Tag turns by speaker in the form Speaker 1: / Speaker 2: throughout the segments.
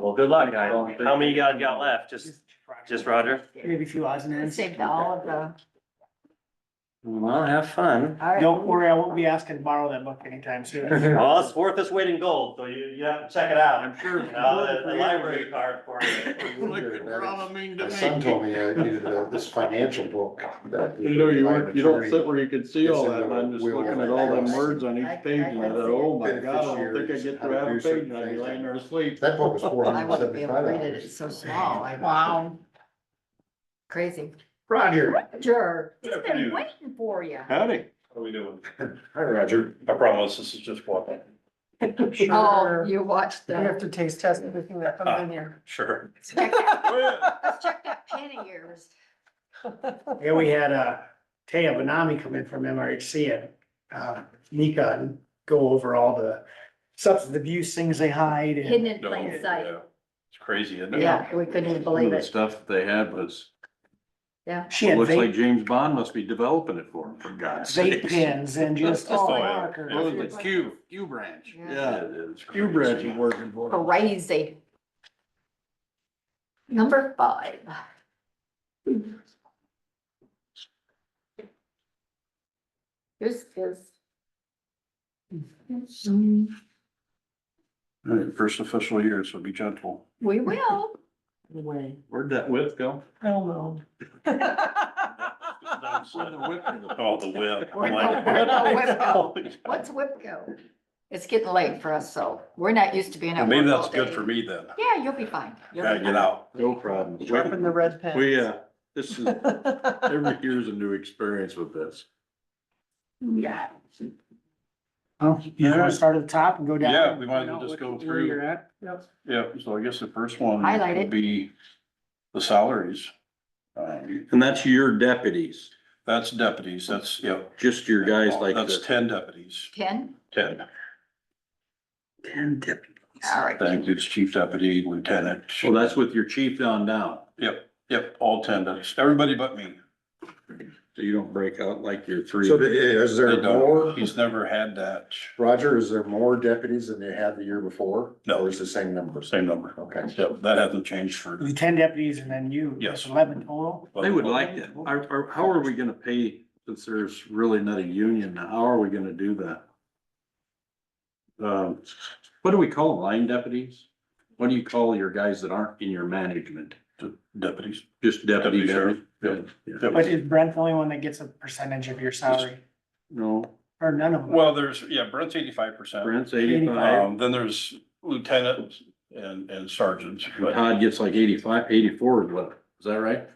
Speaker 1: Well, good luck. I-
Speaker 2: Well,
Speaker 1: How many you guys got left? Just, just Roger?
Speaker 3: Maybe a few odds and ends.
Speaker 4: Saved all of the,
Speaker 1: Well, have fun.
Speaker 4: all right.
Speaker 3: Don't worry, I won't be asking to borrow that book anytime soon.
Speaker 1: Well, it's worth its weight in gold, so you, you have to check it out. I'm sure. The, the library card for you.
Speaker 2: My son told me I needed uh, this financial book. that-
Speaker 5: You know, you, weren't- you don't
Speaker 2: attorney-
Speaker 5: sit where you can see all
Speaker 2: It's in
Speaker 5: that, and
Speaker 2: the
Speaker 5: I'm just
Speaker 2: will.
Speaker 5: looking at all them words on each page, and I thought, oh my god, I don't think I
Speaker 2: Beneficiaries,
Speaker 5: get
Speaker 2: how
Speaker 5: through
Speaker 2: to
Speaker 5: half
Speaker 2: do
Speaker 5: a page,
Speaker 2: certain
Speaker 5: and I'd be
Speaker 2: things.
Speaker 5: laying there asleep.
Speaker 2: That book was four
Speaker 4: I
Speaker 2: hundred
Speaker 4: wouldn't be able
Speaker 2: seventy-five
Speaker 4: to read it, it's
Speaker 2: dollars.
Speaker 4: so small, I. Wow. Crazy.
Speaker 2: Roger.
Speaker 6: Oh,
Speaker 4: Roger, it's
Speaker 1: Good
Speaker 4: been
Speaker 1: afternoon.
Speaker 4: waiting for you.
Speaker 5: Howdy.
Speaker 1: What are we doing?
Speaker 2: Hi, Roger.
Speaker 1: I promise, this is just walking.
Speaker 4: Oh, you watched
Speaker 6: You
Speaker 4: the.
Speaker 6: have to taste test everything that comes in here.
Speaker 1: Sure.
Speaker 4: Check that- Let's check that pen of yours.
Speaker 3: Yeah, we had, uh, Taya Benami come in from MRHC and, uh, Nika and go over all the substance abuse things they hide
Speaker 4: Hidden
Speaker 3: and
Speaker 4: in plain sight.
Speaker 5: uh,
Speaker 1: It's crazy, isn't
Speaker 4: Yeah, we couldn't even believe it.
Speaker 5: stuff that they had was,
Speaker 3: she had vape,
Speaker 5: James Bond must be developing it for them, for God's
Speaker 3: vape pens and just all
Speaker 4: Oh,
Speaker 1: yeah.
Speaker 3: markers.
Speaker 4: It was like Q-
Speaker 5: Q branch.
Speaker 4: Yeah.
Speaker 5: Yeah, Q branch is working for them.
Speaker 4: Crazy. Number five. This is.
Speaker 5: All right, first official year, so be gentle.
Speaker 4: We will.
Speaker 6: Way.
Speaker 5: Where'd that whip go?
Speaker 6: Hell no.
Speaker 1: Oh, the whip.
Speaker 4: We're not- we're not whip go. What's WIPCO? It's getting late for us, so we're not used to being at work all day.
Speaker 1: me then.
Speaker 4: Yeah, you'll be fine. You'll be fine.
Speaker 1: out.
Speaker 5: No problem.
Speaker 6: Dropping the red pen.
Speaker 5: We, uh, this is, every year's a new experience with this.
Speaker 4: Yeah.
Speaker 3: Oh, you just wanna start at the top and go down?
Speaker 5: Yeah, we might as well
Speaker 3: Find out
Speaker 5: just go
Speaker 3: what- where
Speaker 5: through.
Speaker 3: you're at? Yep.
Speaker 5: Yeah, so I guess the first one
Speaker 4: Highlight
Speaker 5: would
Speaker 4: it.
Speaker 5: be the salaries. And that's your deputies? That's deputies, that's, yeah. Just your guys like. That's ten deputies,
Speaker 4: Ten?
Speaker 5: ten.
Speaker 4: All right.
Speaker 5: That includes chief deputy, lieutenant. Well, that's with your chief down down. Yep, yep, all ten deputies, everybody but me. So you don't break out like your three?
Speaker 2: So the- is there more,
Speaker 5: He's never had that.
Speaker 2: Roger, is there more deputies than they had the year before?
Speaker 5: No.
Speaker 2: Or is it the same number?
Speaker 5: Same number.
Speaker 2: Okay.
Speaker 5: Yep, that hasn't changed for.
Speaker 3: The ten deputies and then you. that's
Speaker 5: Yes.
Speaker 3: Eleven total.
Speaker 7: They would like that. Are, are, how are we gonna pay, since there's really not a union now, how are we gonna do that? Um, what do we call them, line deputies? What do you call your guys that aren't in your management?
Speaker 5: Deputies.
Speaker 7: Just deputy?
Speaker 5: Deputy sheriff,
Speaker 7: deputy? Yeah.
Speaker 3: But is Brent the only one that gets a percentage of your salary?
Speaker 7: No,
Speaker 3: Or none of them?
Speaker 5: Well, there's, yeah, Brent's eighty-five percent.
Speaker 7: Brent's eighty-five,
Speaker 5: Um, then there's lieutenant and, and sergeants, but.
Speaker 7: Todd gets like 85, 84 is what, is that right?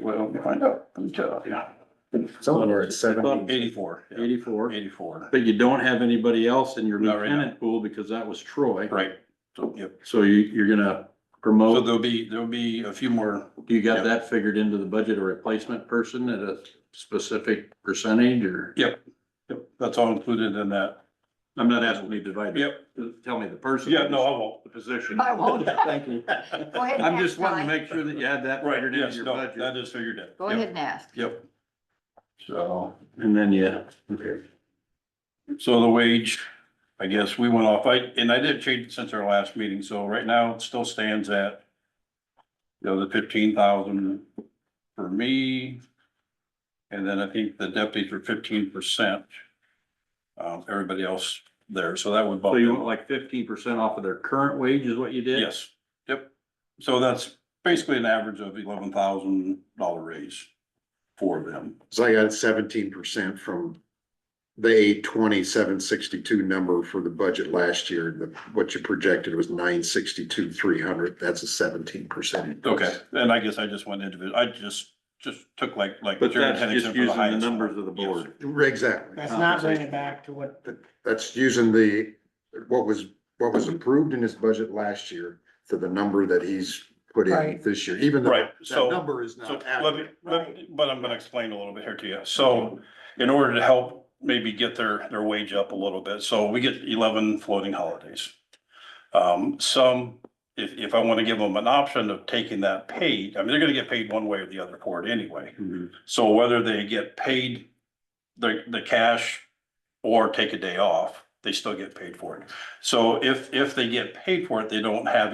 Speaker 5: Well, we'll find out. Let me tell you.
Speaker 2: Somewhere at seventy.
Speaker 5: Eighty-four. yeah,
Speaker 7: Eighty-four,
Speaker 5: Eighty-four,
Speaker 7: but you don't have anybody else in your
Speaker 5: Not right now.
Speaker 7: lieutenant pool because that was Troy.
Speaker 5: right, so, oh. yep,
Speaker 7: So you, you're
Speaker 5: so
Speaker 7: gonna promote
Speaker 5: there'll be, there'll be a few more,
Speaker 7: You got
Speaker 5: Yep.
Speaker 7: that figured into the budget, a replacement person at a specific percentage or?
Speaker 5: Yep, that's all included in that,
Speaker 7: I'm not asking you to divide. it.
Speaker 5: yep,
Speaker 7: Tell me the person.
Speaker 5: yeah, no, I won't.
Speaker 7: The position.
Speaker 4: I won't.
Speaker 7: Oh, Thank you.
Speaker 4: Go ahead and
Speaker 7: I'm
Speaker 4: ask,
Speaker 7: just wanting to
Speaker 4: Ty.
Speaker 7: make sure that you had that
Speaker 5: Right,
Speaker 7: figured into
Speaker 5: yes,
Speaker 7: your
Speaker 5: no, that
Speaker 7: budget.
Speaker 5: is figured in.
Speaker 4: Go
Speaker 5: Yep,
Speaker 4: ahead and ask.
Speaker 5: Yep. So,
Speaker 7: And then, yeah. okay.
Speaker 5: so the wage, I guess we went off, I, and I did change it since our last meeting, so right now it still stands at. You know, the fifteen thousand for me. And then I think the deputies were fifteen percent. Um, everybody else there, so that would bump.
Speaker 7: So you
Speaker 5: it.
Speaker 7: want like fifteen percent off of their current wage is what you did?
Speaker 5: Yes, yep. So that's basically an average of eleven thousand dollar raise for them.
Speaker 2: So I got seventeen percent from the eight twenty-seven sixty-two number for the budget last year. The- What you projected was nine sixty-two, three hundred. That's a seventeen percent.
Speaker 5: Okay, and I guess I just went into it, I just, just took like, like.
Speaker 7: But
Speaker 5: Jared
Speaker 7: that's just
Speaker 5: Henningsen for
Speaker 7: using the
Speaker 5: highest
Speaker 7: numbers
Speaker 5: number.
Speaker 7: of the board.
Speaker 2: Exactly.
Speaker 3: That's not bringing it back to what
Speaker 2: That's using the, what was, what was approved in his budget last year to the number that he's put in
Speaker 6: Right.
Speaker 2: this year, even though
Speaker 5: Right,
Speaker 2: that
Speaker 5: so-
Speaker 2: number is
Speaker 5: So
Speaker 2: not
Speaker 5: let me,
Speaker 2: accurate.
Speaker 5: let me- but I'm gonna explain a little bit here to you. So in order to help maybe get their, their wage up a little bit, so we get eleven floating holidays. Um, some, if, if I wanna give them an option of taking that paid, I mean, they're gonna get paid one way or the other for it anyway.
Speaker 7: Mhm.
Speaker 5: So whether they get paid the, the cash or take a day off, they still get paid for it. So if, if they get paid for it, they don't have